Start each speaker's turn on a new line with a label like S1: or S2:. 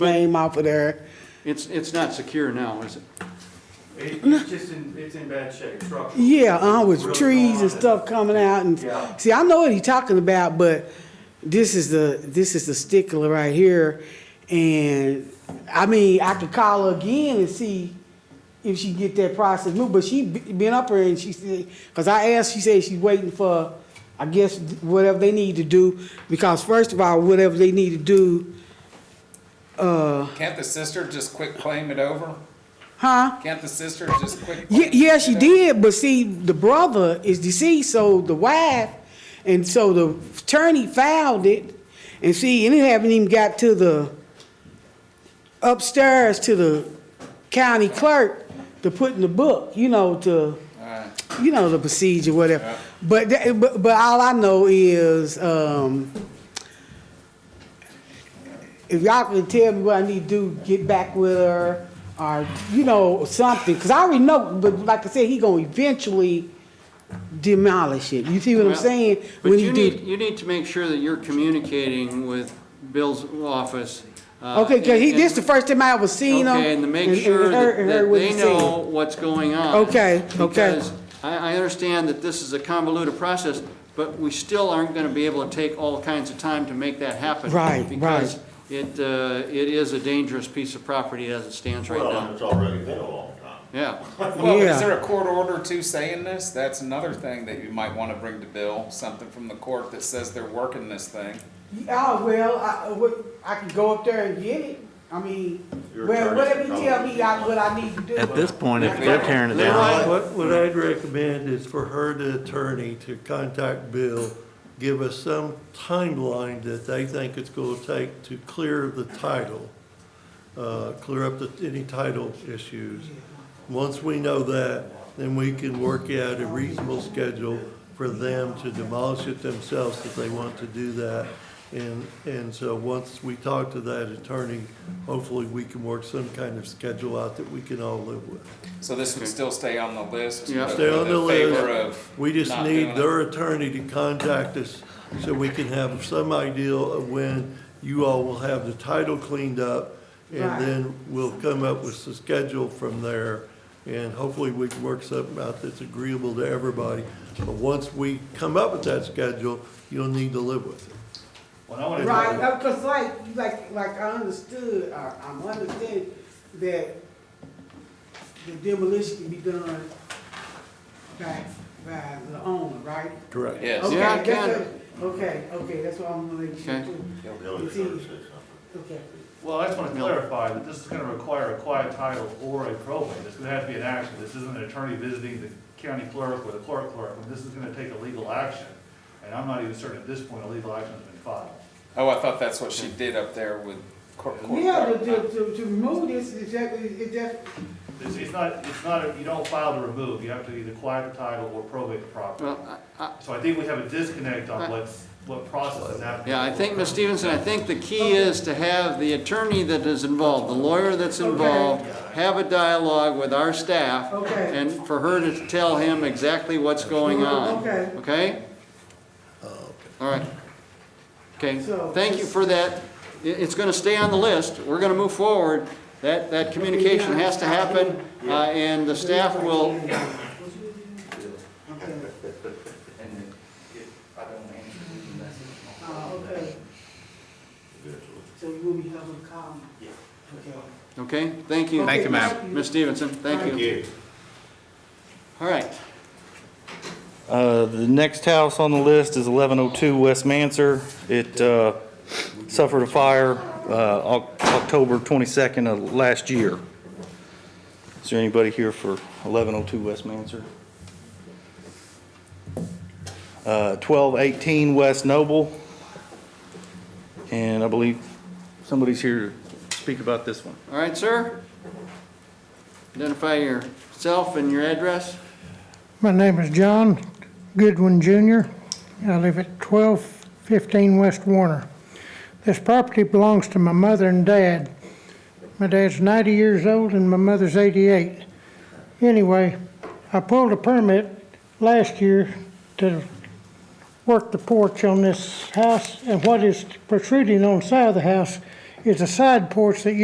S1: name off of there.
S2: It's, it's not secure now, is it?
S3: It, it's just in, it's in bad shape, structural.
S1: Yeah, uh, with
S3: Really
S1: trees
S3: gone.
S1: and stuff coming out and,
S3: Yeah.
S1: see, I know what he's talking about, but this is the, this is the stickler right here. And, I mean, I could call her again and see if she get that process moved, but she be- been up here and she said, cause I asked, she said she's waiting for, I guess, whatever they need to do, because first of all, whatever they need to do, uh,
S4: Can't the sister just quick claim it over?
S1: huh?
S4: Can't the sister just quick?
S1: Yeah,
S4: claim
S1: yeah,
S4: it
S1: she
S4: over?
S1: did, but see, the brother is deceased, so the wife, and so the attorney filed it, and see, and it haven't even got to the upstairs to the county clerk to put in the book, you know, to,
S4: Alright.
S1: you know, the procedure, whatever.
S4: Yeah.
S1: But, that- but, but all I know is, um, if y'all can tell me what I need to do, get back with her, or, you know, something, cause I already know, but like I said, he gonna eventually demolish it, you see what I'm
S2: Well,
S1: saying?
S2: But
S1: When
S2: you
S1: he
S2: need,
S1: did,
S2: you need to make sure that you're communicating with Bill's office. uh,
S1: okay, cause he,
S2: and-
S1: this the first time I ever seen him.
S2: Okay, and to make
S1: and- and
S2: sure
S1: heard-
S2: that
S1: and
S2: that
S1: heard what
S2: they
S1: he said.
S2: know what's going on.
S1: Okay, okay.
S2: Because I, I understand that this is a convoluted process, but we still aren't gonna be able to take all kinds of time to make that happen.
S1: Right, right.
S2: Because it, uh, it is a dangerous piece of property as it stands right
S5: Well, and
S2: now.
S5: it's already been a long time.
S2: Yeah.
S4: Well,
S1: Yeah.
S4: is there a court order too saying this? That's another thing that you might wanna bring to Bill, something from the court that says they're working this thing.
S1: Oh, well, I, uh, what, I can go up there and get it, I mean,
S5: Your
S1: well,
S5: attorney's
S1: whatever you
S5: probably-
S1: tell me, I, what I need to do.
S6: At this point, if they're tearing it
S2: Right.
S6: down,
S7: What, what I'd recommend is for her, the attorney, to contact Bill, give us some timeline that they think it's gonna take to clear the title, uh, clear up the, any title issues. Once we know that, then we can work out a reasonable schedule for them to demolish it themselves if they want to do that. And, and so once we talk to that attorney, hopefully we can work some kind of schedule out that we can all live with.
S4: So this would still stay on the list?
S2: Yeah.
S4: but
S7: Stay on
S4: with
S7: the
S4: a favor
S7: list.
S4: of
S7: We just
S4: not doing
S7: need
S4: it?
S7: their attorney to contact us so we can have some idea of when you all will have the title cleaned up.
S1: Right.
S7: And then we'll come up with the schedule from there. And hopefully we can work something out that's agreeable to everybody. But once we come up with that schedule, you'll need to live with it.
S3: When I went
S1: Right,
S3: to,
S1: because like, like, like I understood, or I'm understanding that the demolition can be done by, by the owner, right?
S7: Correct.
S4: Yes,
S1: Okay,
S2: Yeah, it
S1: that's
S2: can.
S1: a- Okay, okay, that's what I'm gonna make sure
S2: Okay.
S1: too.
S5: Bill, you're gonna say something.
S1: Okay,
S3: well, I just want to clarify that this is going to require a quiet title or a probate. It's going to have to be an action. This isn't an attorney visiting the county clerk or the court clerk. This is going to take a legal action. And I'm not even certain at this point a legal action has been filed.
S4: oh, I thought that's what she did up there with court. court-
S1: yeah, to, to, to- to remove this, is that, is that,
S3: It's, it's not, it's not, a- you don't file to remove. You have to either quiet the title or probate the property.
S2: Well, I- I-
S3: So I think we have a disconnect on what's, what process is happening.
S2: yeah, I think, Ms. Stevenson, I think the key is to have the attorney that is involved, the lawyer that's involved, have a dialogue with our staff.
S1: Okay.
S2: And for her to tell him exactly what's going on.
S1: Okay.
S2: Okay? Oh, All right. Okay,
S1: So-
S2: thank you for that. I- it's gonna stay on the list. We're gonna move forward. That, that communication has to happen, uh, and the staff will,
S1: Okay.
S8: And if I don't answer the message.
S1: Uh, okay, so you will be having a comment?
S8: Yeah.
S1: Okay.
S2: okay? Thank you.
S4: Thank you, ma'am.
S2: Ms. Stevenson, thank you.
S5: Eventually.
S2: All right.
S6: uh, the next house on the list is 1102 West Manser. It uh, suffered a fire uh, Oc- October 22nd of last year. Is there anybody here for 1102 West Manser? Uh, 1218 West Noble. And I believe somebody's here to speak about this one.
S2: All right, sir? Identify yourself and your address.
S9: My name is John Goodwin Jr. I live at 1215 West Warner. This property belongs to my mother and dad. My dad's 90 years old and my mother's 88. Anyway, I pulled a permit last year to work the porch on this house, and what is protruding on the side of the house is a side porch that